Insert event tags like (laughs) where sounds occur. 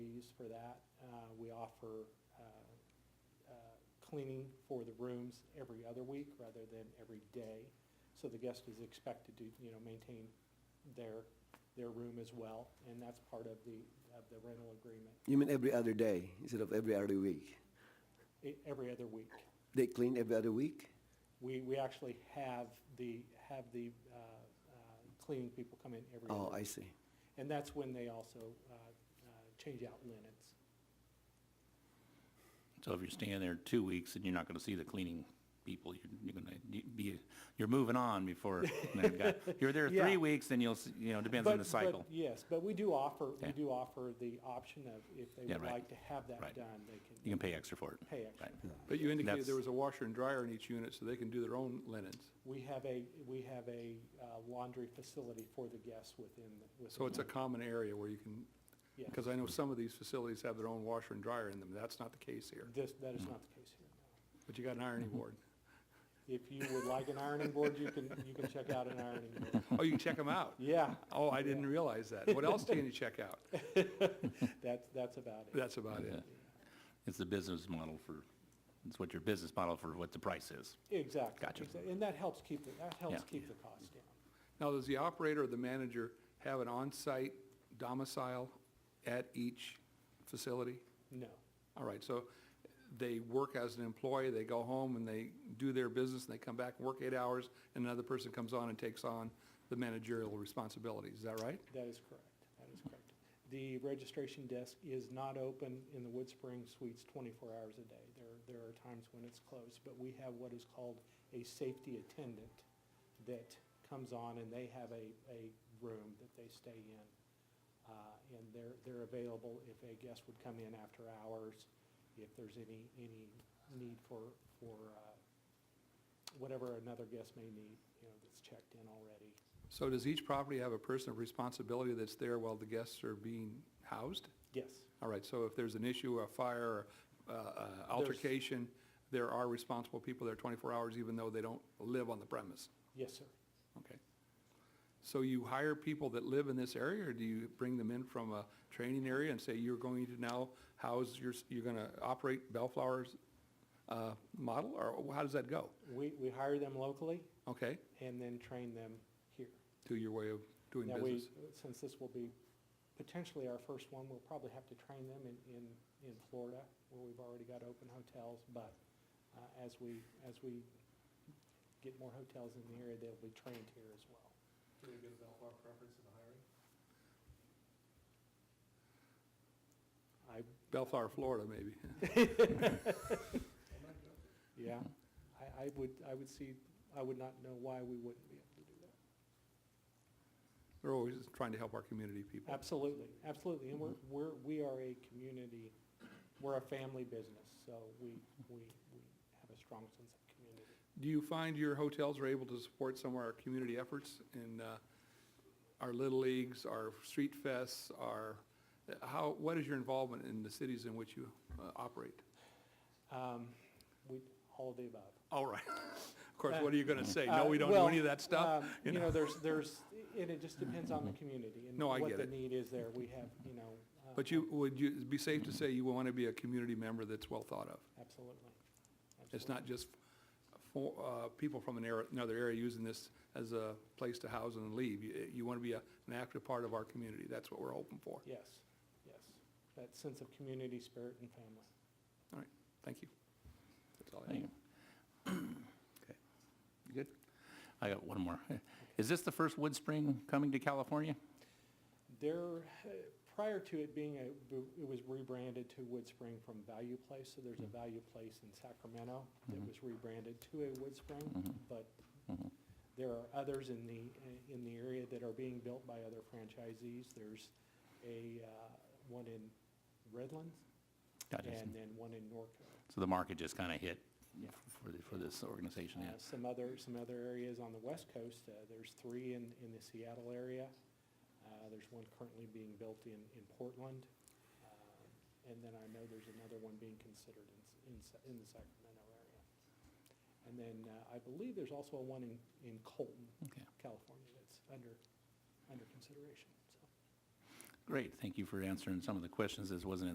for that. Uh, We offer uh, uh, cleaning for the rooms every other week rather than every day. So the guest is expected to, you know, maintain their, their room as well, and that's part of the, of the rental agreement, You mean every other day instead of every other week? e- every other week. They clean every other week? We, we actually have the, have the uh, uh, cleaning people come in every Oh, other I week. see. And that's when they also uh, uh, change out linens. So if you're staying there two weeks and you're not gonna see the cleaning people, you're, you're gonna you- be, you're moving (laughs) on before, you know, you've got- you're there Yeah. three weeks, then you'll, see- you know, depends on But- the but cycle. Yes, but we do offer, we Yeah. do offer the option of if they Yeah, would right. like to have that Right. done, they You can can pay extra for it. pay extra. Right. But you indicated there That's- was a washer and dryer in each unit, so they can do their own linens. We have a, we have a uh, laundry facility for the guests within. the- So it's a within common area where you can, the- yeah. because I know some of these facilities have their own washer and dryer in them. That's not the case here, This, that Hmm. is not the case here, no. but you got (laughs) an ironing board. If you would like an ironing board, you can, you can check out an ironing board. Oh, you can check them out? Yeah, Oh, I didn't realize that. What else can you (laughs) check out? that's, that's about it. That's about it. uh, It's the business model for, it's what your business model for what the price is. Exactly. Gotcha. exact- And that helps keep, the- that helps Yeah. keep the cost down. Now, does the operator or the manager have an on-site domicile at each facility? No, All right, so they work as an employee, they go home and they do their business, and they come back and work eight hours, and another person comes on and takes on the managerial responsibilities, is that right? that is correct. That is correct. The registration desk is not open in the Wood Spring Suites twenty-four hours a day. There, there are times when it's closed, but we have what is called a safety attendant that comes on and they have a, a room that they stay in. Uh, And they're, they're available if a guest would come in after hours, if there's any, any need for, for uh, whatever another guest may need, you know, that's checked in already. So does each property have a person of responsibility that's there while the guests are being housed? Yes, All right, so if there's an issue, a fire, uh, uh, altercation, there are responsible people there 24 hours, even though they don't live on the premise? yes, sir. Okay. So you hire people that live in this area, or do you bring them in from a training area and say, you're going to now house your, you're gonna operate Bellflower's, uh, model, or how does that go? We, we hire them locally Okay, and then train them here. to your way of doing Now, we, business. since this will be potentially our first one, we'll probably have to train them in, in, in Florida, where we've already got open hotels, but uh, as we, as we get more hotels in the area, they'll be trained here as well. I, Bellflower, Florida, maybe. (laughs) (laughs) yeah, I, I would, I would see, I would not know why we wouldn't be able to do that. They're always trying to help our community people. Absolutely, absolutely, and Mm-hmm. we're, we're, we are a community, we're a family business, so we, we, we have a strong sense of community. Do you find your hotels are able to support some of our community efforts in uh, our Little Leagues, our street fests, our, how, what is your involvement in the cities in which you uh, operate? Um, we, all of the above. All right. (laughs) Of course, what are you going to say? No, Uh, we don't do well, any of that um, stuff? You You know, know. Mm-hmm. there's, there's, and it just depends on the community and No, I what get the it. need is there, we have, you know. uh, But you, would you, it'd be safe to say you want to be a community member that's well thought of? Absolutely. It's absolutely. not just for, uh, people from an area, another area using this as a place to house and leave. You, you want to be a- an active part of our community. That's what we're hoping for. Yes, yes, that sense of community, spirit, and family. Thank you. That's all I Thank have. you. Okay. You Good? I got one more. (laughs) Is this the first Wood Spring coming to California? There, uh, prior to it being a, it was rebranded to Wood Spring from Value Place, so there's a Value Place in Sacramento that Mhm. was rebranded to a Wood Spring, Mhm. but Mhm. there are others in the, in the area that are being built by other franchisees. There's a, uh, one in Redlands Gotcha. and then one in Norco. So the market just kind of hit Yeah. for, the- for this organization, Uh, yeah. Some other, some other areas on the west coast, uh, there's three in, in the Seattle area. Uh, There's one currently being built in, in Portland. Um, And then I know there's another one being considered in, S- in, Sa- in the Sacramento area. And then uh, I believe there's also a one in, in Colton, Okay. California, that's under, under consideration, so. Great, thank you for answering some of the questions. This wasn't in